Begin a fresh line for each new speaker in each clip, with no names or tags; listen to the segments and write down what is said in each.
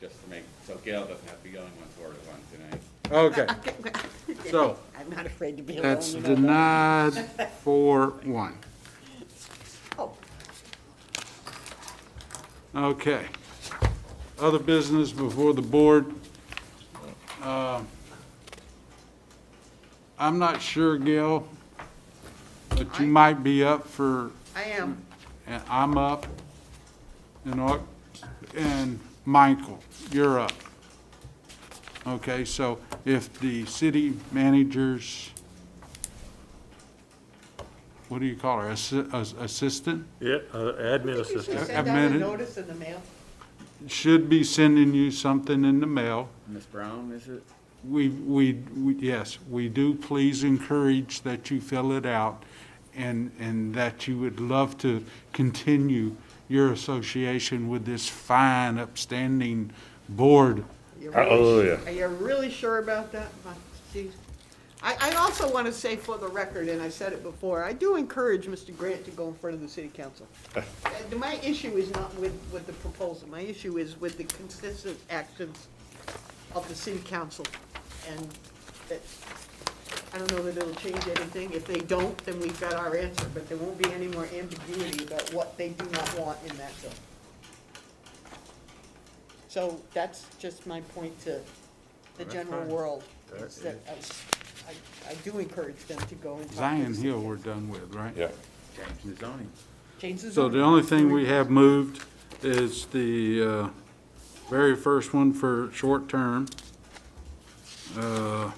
just to make, so Gail doesn't have to be going one four to one tonight.
Okay, so
I'm not afraid to be alone.
that's
you know that.
denied for one.
Oh,
Okay. Other business before the board. Uh, I'm not sure, Gail, but you might be up for,
I am.
and I'm up, and, Au- and Michael, you're up. Okay, so if the city managers, what do you call her, assi- as- assistant?
Yeah, uh, admin
Did you
assistant.
I've
send out a
managed-
notice in the mail?
should be sending you something in the mail.
Ms. Brown, is it?
We, we, we- yes, we do please encourage that you fill it out and, and that you would love to continue your association with this fine upstanding board.
You're
Uh,
really-
oh, yeah.
Are you really sure about that? My- geez. I, I also want to say for the record, and I said it before, I do encourage Mr. Grant to go in front of the city council.
Eh.
Uh, My issue is not with, with the proposal, my issue is with the consistent actions of the city council. And that, I don't know that it'll change anything. If they don't, then we've got our answer, but there won't be any more ambiguity about what they do not want in that zone. So that's just my point to the general world, is that I, I- I do encourage them to go and talk to
Zion
the-
Hill we're done with, right?
Yeah.
Change the zoning.
Change the
So
zone.
the only thing we have moved is the uh, very first one for short term. Uh,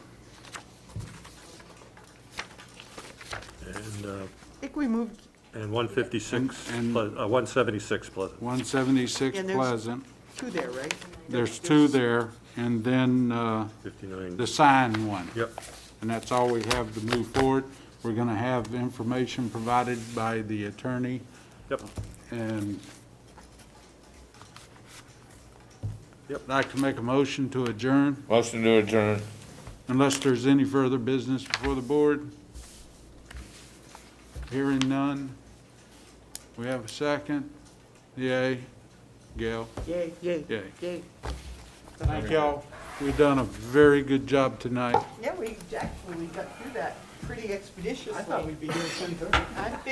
And, uh,
I think we moved,
and 156,
And- and-
Pleas- uh, 176 Pleasant.
176
And there's-
Pleasant.
two there, right?
There's two there, and then uh,
59.
the sign one.
Yep.
And that's all we have to move forward. We're going to have information provided by the attorney,
Yep,
and
Yep.
I'd like to make a motion to adjourn,
Motion to adjourn.
unless there's any further business before the board. Hearing none. We have a second? Yay. Gail?
Yay, yay,
Yay.
yay.
Thank y'all. We've done a very good job tonight.
Yeah, we, actually, we got through that pretty expeditiously. I thought we'd be here soon,